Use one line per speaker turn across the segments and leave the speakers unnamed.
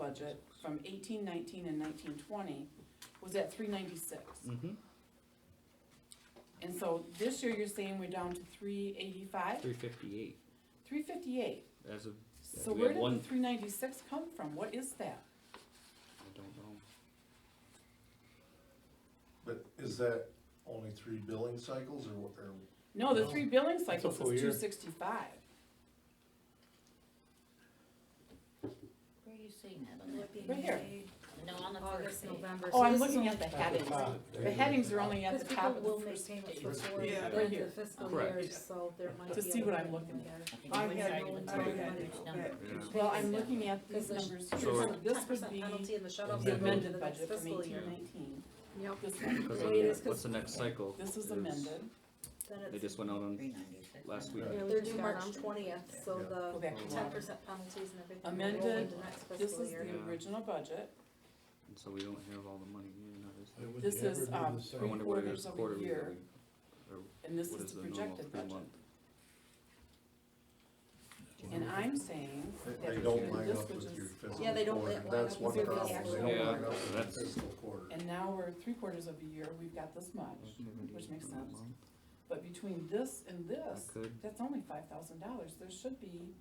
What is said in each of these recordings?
budget from eighteen nineteen and nineteen twenty was at three ninety-six.
Mm-hmm.
And so this year, you're saying we're down to three eighty-five,
Three fifty-eight,
three fifty-eight.
as of,
So
We
where
had
did the
one-
three ninety-six come from? What is that?
I don't know.
But is that only three billing cycles or, what- or,
No, the
No,
three billing
a
cycles
full
is
year.
two sixty-five.
Where are you seeing that on that?
Right here.
No, on the first
August,
page.
November.
Oh,
so
I'm
this is
looking
only-
at the
At the
headings.
top.
The headings are only at
Because
the top
people
of
will
the
make
first
payments
page.
before
Yeah.
the
Right
end
here.
of fiscal
Correct.
year, so there might be.
To
a
see what I'm
little bit
looking
there.
I think
I
it's
had
one
no-
side
I
and
had
it's
no-
number.
Well, I'm looking at these
Because there's-
numbers
So
here, so
it's-
this would
10%
be
Penalty and the shut offs
Yeah.
the
are going to
amended
the next
budget from
fiscal
eighteen
year.
nineteen.
Yep,
This
Because
So it is
of,
one,
what's the next cycle?
this
is-
is amended,
then
They
it's,
just went out on,
396.
Last week.
Yeah,
they're due March twentieth, so
Yeah.
go
the
back to
ten
water.
percent penalties and everything. will
Amended,
roll into next
This
fiscal
is
year.
the
Yeah.
original budget,
and so we don't have all the money, you know, there's-
It would
This
never
is,
be the
um,
same.
I wonder what it
quarters
is
of a
quarterly. that
year.
we-
and this
What
is
is
the
the normal
projected
three
budget.
month?
And I'm saying that
they
if
don't
you're
line
this,
up
which
with your
is,
fiscal
Yeah, they don't
quarter,
line up
that's
with
one
your
problem,
actual
they don't line
quarter.
up with your
That's-
fiscal quarter.
and now we're three quarters of a year, we've got this much,
Mm-hmm.
Which makes sense. but between this and
I
this,
could,
that's only five thousand dollars, there should be,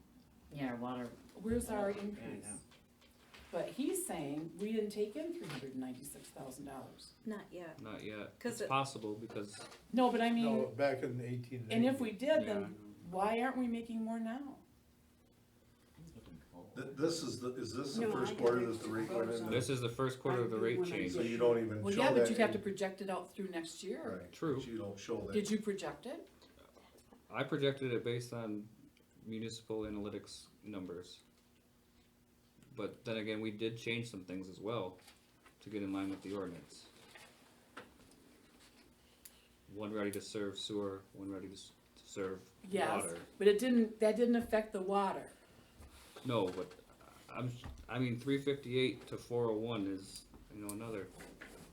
Yeah, our water,
where's our
Yeah, I
increase?
know.
But he's saying, we didn't take in three hundred and ninety-six thousand dollars.
Not yet,
not yet,
'Cause
it's
it-
possible, because,
No, but I mean,
No, back in eighteen ninety.
and if we did,
yeah,
then why aren't we making more now?
it's getting cold.
Th- this is the, is this the
No, I
first
got
quarter
it.
that's the rate went in?
this is the first quarter of the rate
When I
change,
So you don't even show
Well,
that.
yeah, but you'd have to
in-
project it out through next year.
Right,
True.
but you don't show that.
Did you project it?
I projected it based on municipal analytics numbers. But then again, we did change some things as well to get in line with the ordinance. One ready to serve sewer, one ready to s- to serve
Yes.
water.
But it didn't, that didn't affect the water.
No, but I'm, I mean, three fifty-eight to four oh one is, you know, another,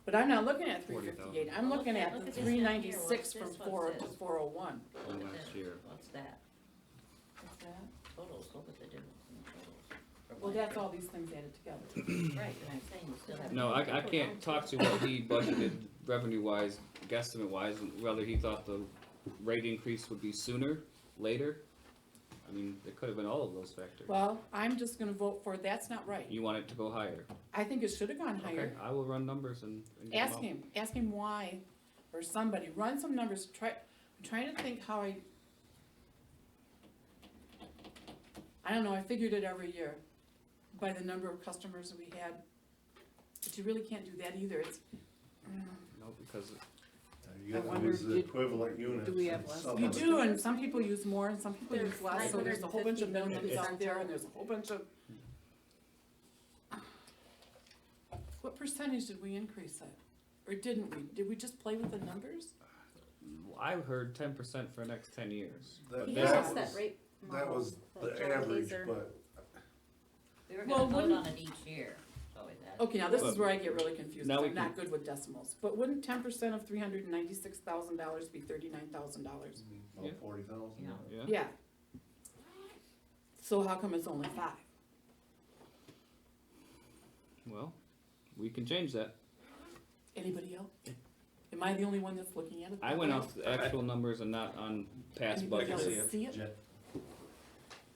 But I'm not looking at three
40,000.
fifty-eight, I'm
Look
looking
at-
at
look
the
at this
three ninety-six from
down here. What's this?
four
What's
to
this?
four oh one.
from
Look at
last
this.
year.
What's that? Totals, look at the difference in totals. From
Well,
last
that's all these things added together.
year. Right, and I'm saying we still have.
No, I, I can't talk to what he budgeted revenue-wise, guesstimate-wise, and whether he thought the rate increase would be sooner, later. I mean, it could have been all of those factors.
Well, I'm just gonna vote for, that's not right.
You want it to go higher.
I think it should've gone
Okay,
higher.
I will run numbers and. and get 'em
Ask
out.
him, ask him why, or somebody, run some numbers, try, I'm trying to think how I. I don't know, I figured it every year by the number of customers that we had. But you really can't do that either, it's,
No, because
You
I
have to
wonder,
use the
did-
equivalent units.
do we have
and
less?
Oh,
sum
You
it.
do, and some people use more and some people use
There's
less, so there's a whole bunch of minimums out there and there's a whole bunch of. What percentage did we increase it? Or didn't we? Did we just play with the numbers?
I've heard ten percent for the next ten years.
That-
He
that
has
was-
that rate
That
model
was
that Joe
the average,
Hazer-
but
We were
Well,
gonna vote
wouldn't-
on it each year, so it has.
Okay, now this is where I get really confused, 'cause
Now we
I'm not good with decimals, but wouldn't ten percent of three hundred and ninety-six thousand dollars be thirty-nine thousand dollars?
Yeah.
mm, about forty thousand.
Yeah.
Yeah,
Yeah. So how come it's only five?
well, we can change that.
Anybody else? Am I the only one that's looking at it?
I went off the actual numbers and not on past
Anybody
budgets.
else
budget.
see it?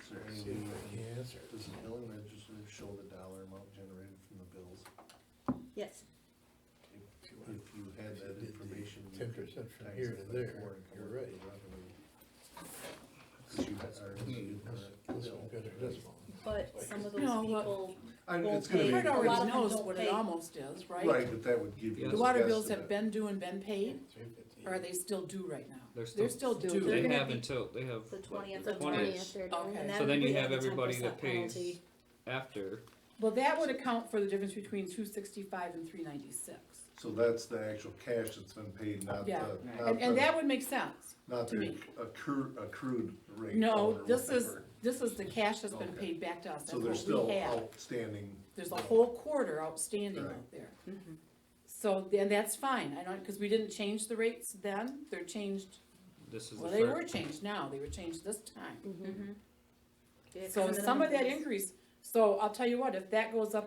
Is there any
See if
way
I
we can-
can answer.
does the billing register show the dollar amount generated from the bills?
Yes,
If you had that information. you
Ten
could
percent from
times
here
it
to
by
there,
four and come
you're
up with
right.
the revenue. 'Cause you had- or you had
This-
that
this
bill.
one better than this one.
but some of those
No, what-
people,
I mean,
Won't
it's gonna be.
pay.
Part
A lot
already
of them
knows
don't
what it
pay.
almost is, right?
Right, but that would give you.
Yeah.
The
an
water bills have
estimate.
been due and been paid,
Three fifty.
or are they still due right now?
They're
They're
still,
still due.
They're
they
gonna
have
be
until, they have.
the
what,
twentieth
the
of
twentieth.
Okay.
and
So then
we
you have
the
everybody
10%
that pays
penalty.
after,
Well, that would account for the difference between two sixty-five and three ninety-six.
So that's the actual cash that's been paid, not the,
Yeah.
not
And, and that
the,
would make sense.
not
to
the
me.
accrued, accrued rate.
No,
or
this is,
whatever.
this is the cash that's been
Okay.
paid back to us,
So
that's
there's
what
still
we have.
outstanding.
There's a whole quarter outstanding
Right.
out there. So, then that's fine, I don't, because we didn't change the rates then, they're changed,
this is the
well,
first.
they were changed now, they were changed this time.
Yeah,
So
minimum
some of that
fees.
increase, so I'll tell you what, if that goes up